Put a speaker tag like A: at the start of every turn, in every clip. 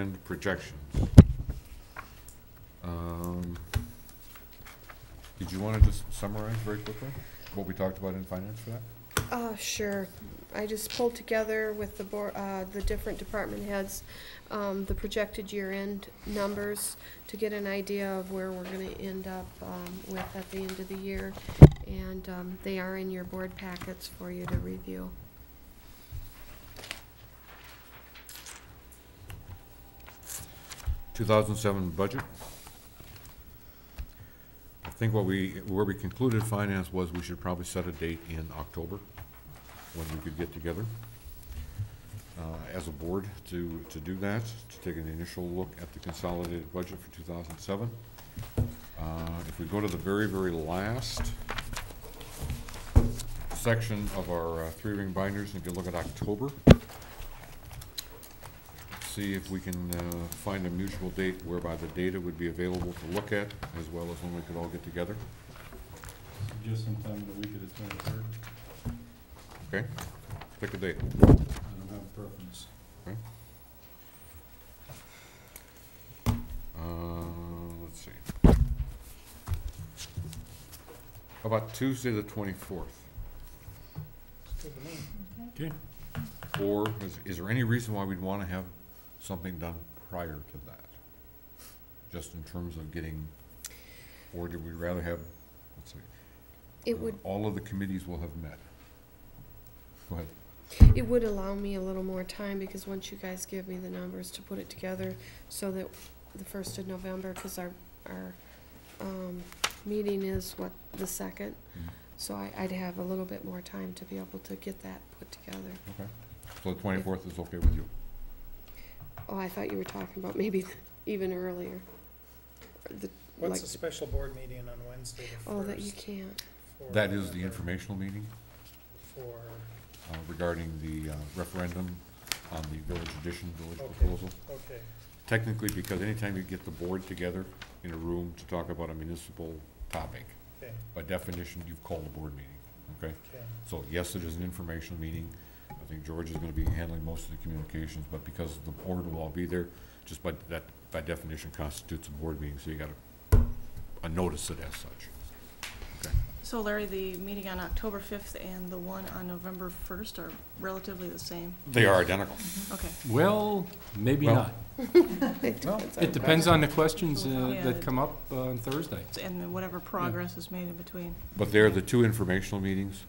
A: And projections. Um, Did you want to just summarize very quickly what we talked about in finance for that?
B: Uh, sure. I just pulled together with the board, uh, the different department heads, um, the projected year-end numbers to get an idea of where we're gonna end up, um, with at the end of the year. And, um, they are in your board packets for you to review.
A: Two thousand seven budget. I think what we, where we concluded finance was we should probably set a date in October when we could get together uh, as a board to, to do that, to take an initial look at the consolidated budget for two thousand seven. Uh, If we go to the very, very last section of our uh, three-ring binders, and if you look at October, see if we can uh, find a mutual date whereby the data would be available to look at, as well as when we could all get together,
C: Just sometime in the week of the twenty-third,
A: okay? Pick a date.
C: I don't have a preference.
A: Uh, Let's see. How about Tuesday, the twenty-fourth?
C: Okay.
A: Or is, is there any reason why we'd want to have something done prior to that? Just in terms of getting, or do we rather have, let's see.
B: It
A: uh,
B: would,
A: All of the committees will have met. Go ahead.
B: it would allow me a little more time because once you guys give me the numbers to put it together so that the first of November, cause our, our, um, meeting is what, the second?
A: Mhm.
B: So I, I'd have a little bit more time to be able to get that put together.
A: Okay, so the twenty-fourth is okay with you?
B: Oh, I thought you were talking about maybe even earlier. The,
D: What's
B: like-
D: the special board meeting on Wednesday the
B: oh, that you
D: first?
B: can't.
D: for
A: That is the
D: November
A: informational meeting
D: For,
A: uh, regarding the uh, referendum on the village addition, village
D: Okay.
A: proposal.
D: okay,
A: Technically, because anytime you get the board together in a room to talk about a municipal topic,
D: okay,
A: by definition, you've called a board meeting, okay?
D: okay,
A: So yes, it is an informational meeting. I think George is gonna be handling most of the communications, but because the board will all be there, just by, that, by definition constitutes a board meeting, so you gotta uh, notice it as such.
E: So Larry, the meeting on October 5th and the one on November 1st are relatively the same?
A: They are identical.
E: Okay.
F: Well, maybe
A: Well-
F: not. It depends on the questions uh, that come up uh, on Thursday.
E: So- And whatever progress is made in between.
A: But they're the two informational meetings,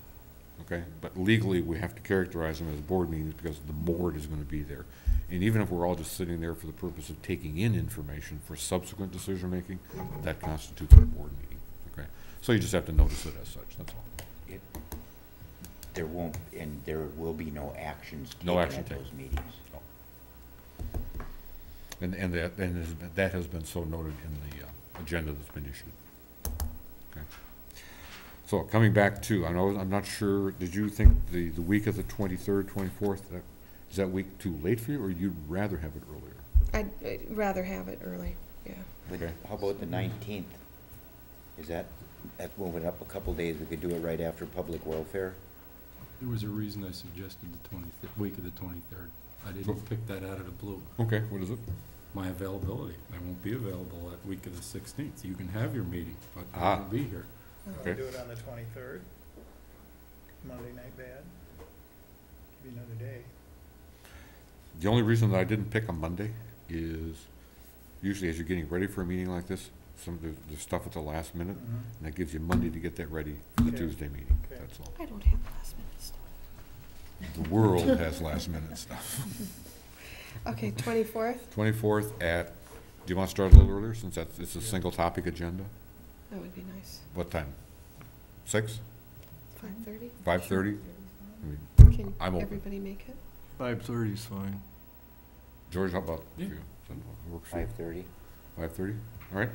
A: okay? But legally, we have to characterize them as board meetings because the board is gonna be there. And even if we're all just sitting there for the purpose of taking in information for subsequent decision-making, that constitutes a board meeting, okay? So you just have to notice it as such, that's all.
G: There won't, and there will be no actions
A: No
G: taken
A: action
G: at
A: taken.
G: those meetings.
A: And, and that, and has been- that has been so noted in the uh, agenda that's been issued. Okay. So coming back to, I know, I'm not sure, did you think the, the week of the twenty-third, twenty-fourth, is that week too late for you, or you'd rather have it earlier?
B: I'd I'd rather have it early, yeah.
G: But
A: Okay.
G: how about the nineteenth? Is that, that's moving up a couple days, we could do it right after public welfare?
F: There was a reason I suggested the 20th, week of the 23rd. I didn't pick that out of the blue.
A: Okay, what is it?
F: My availability, I won't be available that week of the 16th. You can have your meeting, but I
A: Ah.
F: won't be here.
D: I'll
A: Okay.
D: do it on the twenty-third, Monday night bad, give you another day.
A: The only reason that I didn't pick a Monday is usually as you're getting ready for a meeting like this, some of the, the stuff at the last minute,
D: Mhm.
A: and that gives you Monday to get that ready for the
D: Okay.
A: Tuesday meeting,
D: Okay.
A: that's all.
B: I don't have last minute stuff.
A: The world has last minute stuff.
B: Okay, twenty-fourth,
A: Twenty-fourth at, do you want to start a little earlier, since that's, it's a
C: Yeah.
A: single topic agenda?
B: that would be nice.
A: What time? Six?
B: Five-thirty?
A: Five-thirty?
B: Can
A: I'm open.
B: everybody make it?
H: Five-thirty is fine.
A: George, how about
F: Yeah.
A: you? Works for you?
G: Five-thirty?
A: Five-thirty? All right.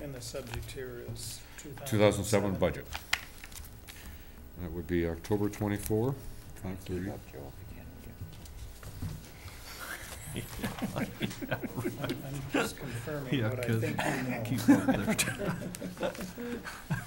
D: And the subject here is two thousand.
A: Two thousand seven budget. That would be October twenty-four, five-thirty.
D: I'm just confirming
H: Yeah,
D: what I
H: 'cause-
D: think you know.
H: Keep up there.